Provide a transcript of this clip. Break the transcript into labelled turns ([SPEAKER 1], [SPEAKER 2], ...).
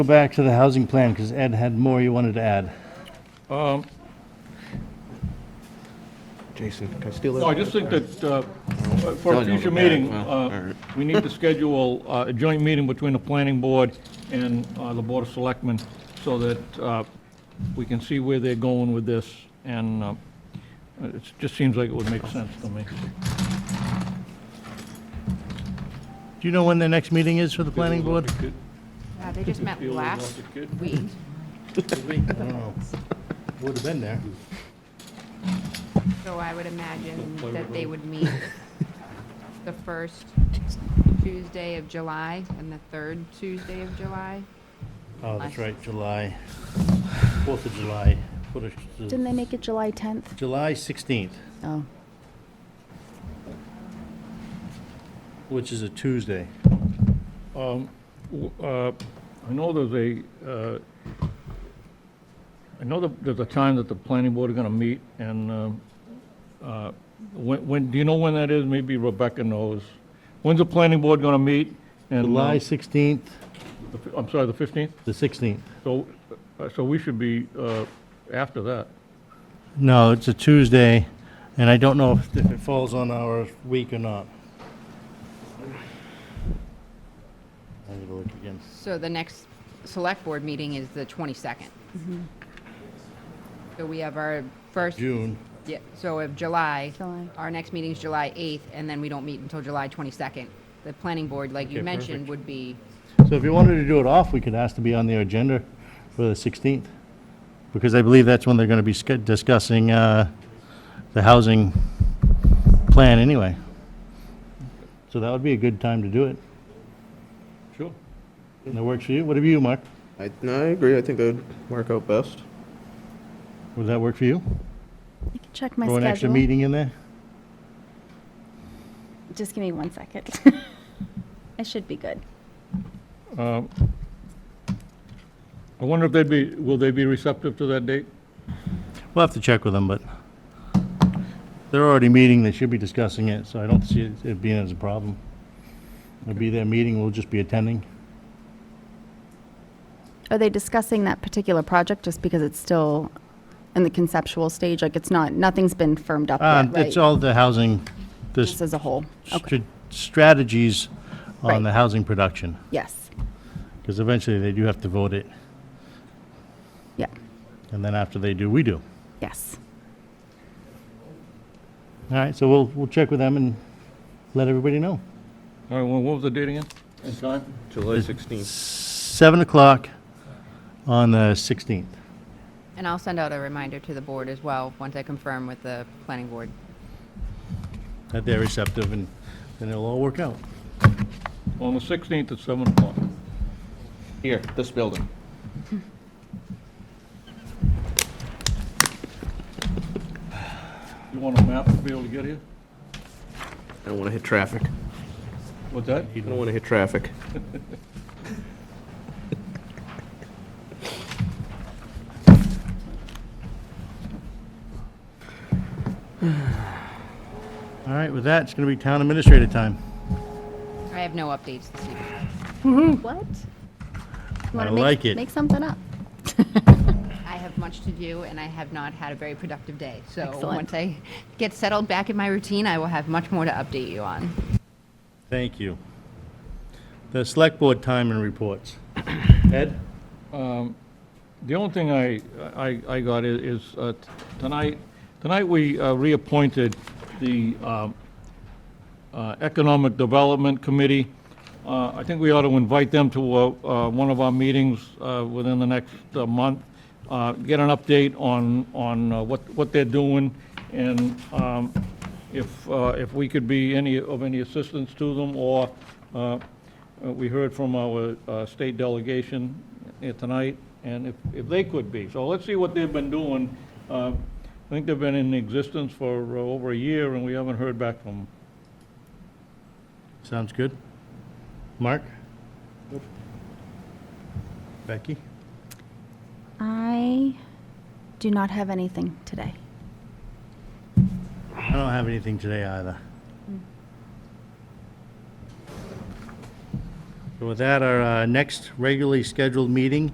[SPEAKER 1] Go back to the housing plan, because Ed had more you wanted to add.
[SPEAKER 2] Um,
[SPEAKER 3] Jason, can I steal that?
[SPEAKER 2] No, I just think that uh, for a
[SPEAKER 3] Telling you
[SPEAKER 2] future
[SPEAKER 3] to back,
[SPEAKER 2] meeting,
[SPEAKER 3] well,
[SPEAKER 2] uh,
[SPEAKER 3] all right.
[SPEAKER 2] we need to schedule uh, a joint meeting between the planning board and uh, the board of selectmen so that uh, we can see where they're going with this. And uh, it just seems like it would make sense to me.
[SPEAKER 1] Do you know when the next meeting is for the planning board?
[SPEAKER 4] Uh, They just met
[SPEAKER 2] Feel like
[SPEAKER 4] last
[SPEAKER 2] a kid.
[SPEAKER 4] week.
[SPEAKER 1] Would have been there.
[SPEAKER 4] So I would imagine that they would meet the first Tuesday of July and the third Tuesday of July.
[SPEAKER 1] Oh, that's right, July, 4th of July, What is the-
[SPEAKER 5] Didn't they make it July 10th?
[SPEAKER 1] July 16th,
[SPEAKER 5] Oh.
[SPEAKER 1] which is a Tuesday.
[SPEAKER 2] Um, w- uh, I know there's a, uh, I know that there's a time that the planning board are going to meet, and um, uh, when, when- do you know when that is? Maybe Rebecca knows. When's the planning board going to meet? And, uh,
[SPEAKER 1] July 16th,
[SPEAKER 2] the fi- I'm sorry, the 15th?
[SPEAKER 1] the 16th.
[SPEAKER 2] So, uh, so we should be uh, after that.
[SPEAKER 1] No, it's a Tuesday, and I don't know if if it falls on our week or not. I need to look again.
[SPEAKER 4] So the next select board meeting is the 22nd. So we have our first,
[SPEAKER 1] June,
[SPEAKER 4] yeah, so of July.
[SPEAKER 5] July.
[SPEAKER 4] Our next meeting's July 8th, and then we don't meet until July 22nd. The planning board, like you
[SPEAKER 1] Okay,
[SPEAKER 4] mentioned,
[SPEAKER 1] perfect.
[SPEAKER 4] would be,
[SPEAKER 1] So if you wanted to do it off, we could ask to be on the agenda for the 16th, because I believe that's when they're going to be sc- discussing uh, the housing plan anyway. So that would be a good time to do it.
[SPEAKER 2] Sure.
[SPEAKER 1] And that works for you? What about you, Mark?
[SPEAKER 3] I, no, I agree. I think that would work out best.
[SPEAKER 1] Would that work for you?
[SPEAKER 5] I can check my
[SPEAKER 1] Throw an extra
[SPEAKER 5] schedule.
[SPEAKER 1] meeting in there?
[SPEAKER 5] Just give me one second. I should be good.
[SPEAKER 2] Um, I wonder if they'd be, will they be receptive to that date?
[SPEAKER 1] We'll have to check with them, but they're already meeting, they should be discussing it, so I don't see it- it being as a problem. It'll be their meeting, we'll just be attending.
[SPEAKER 5] Are they discussing that particular project just because it's still in the conceptual stage? Like, it's not, nothing's been firmed up
[SPEAKER 1] Uh,
[SPEAKER 5] yet,
[SPEAKER 1] It's
[SPEAKER 5] right?
[SPEAKER 1] all the housing, this
[SPEAKER 5] Just as a whole? Okay,
[SPEAKER 1] str- strategies on
[SPEAKER 5] Right.
[SPEAKER 1] the housing production,
[SPEAKER 5] yes,
[SPEAKER 1] because eventually they do have to vote it,
[SPEAKER 5] yeah,
[SPEAKER 1] and then after they do, we do.
[SPEAKER 5] yes.
[SPEAKER 1] All right, so we'll, we'll check with them and let everybody know.
[SPEAKER 2] All right, well, what was the date again? And time?
[SPEAKER 3] July 16th.
[SPEAKER 1] 7 o'clock on the 16th.
[SPEAKER 4] and I'll send out a reminder to the board as well, once I confirm with the planning board.
[SPEAKER 1] That they're receptive, and then it'll all work out.
[SPEAKER 2] On the 16th at 7 o'clock.
[SPEAKER 3] Here, this building.
[SPEAKER 2] You want a map to be able to get here?
[SPEAKER 3] I don't want to hit traffic.
[SPEAKER 2] What's that?
[SPEAKER 3] I don't want to hit traffic.
[SPEAKER 1] All right, with that, it's going to be town administrator time.
[SPEAKER 4] I have no updates this evening.
[SPEAKER 5] What?
[SPEAKER 1] I like it.
[SPEAKER 5] Make something up.
[SPEAKER 4] I have much to do, and I have not had a very productive day. So
[SPEAKER 5] Excellent.
[SPEAKER 4] once I get settled back in my routine, I will have much more to update you on.
[SPEAKER 1] Thank you. The select board time and reports. Ed?
[SPEAKER 2] The only thing I, I, I got i- is, uh, t- tonight, tonight we uh, reappointed the, um, uh, Economic Development Committee. Uh, I think we ought to invite them to uh, uh, one of our meetings uh, within the next uh, month, uh, get an update on, on uh, what, what they're doing, and um, if, uh, if we could be any, of any assistance to them, or uh, uh, we heard from our uh, state delegation here tonight, and if, if they could be. So let's see what they've been doing. Uh, I think they've been in existence for uh, over a year, and we haven't heard back from them.
[SPEAKER 1] Sounds good. Mark? Becky?
[SPEAKER 5] I do not have anything today.
[SPEAKER 1] I don't have anything today either. So with that, our uh, next regularly scheduled meeting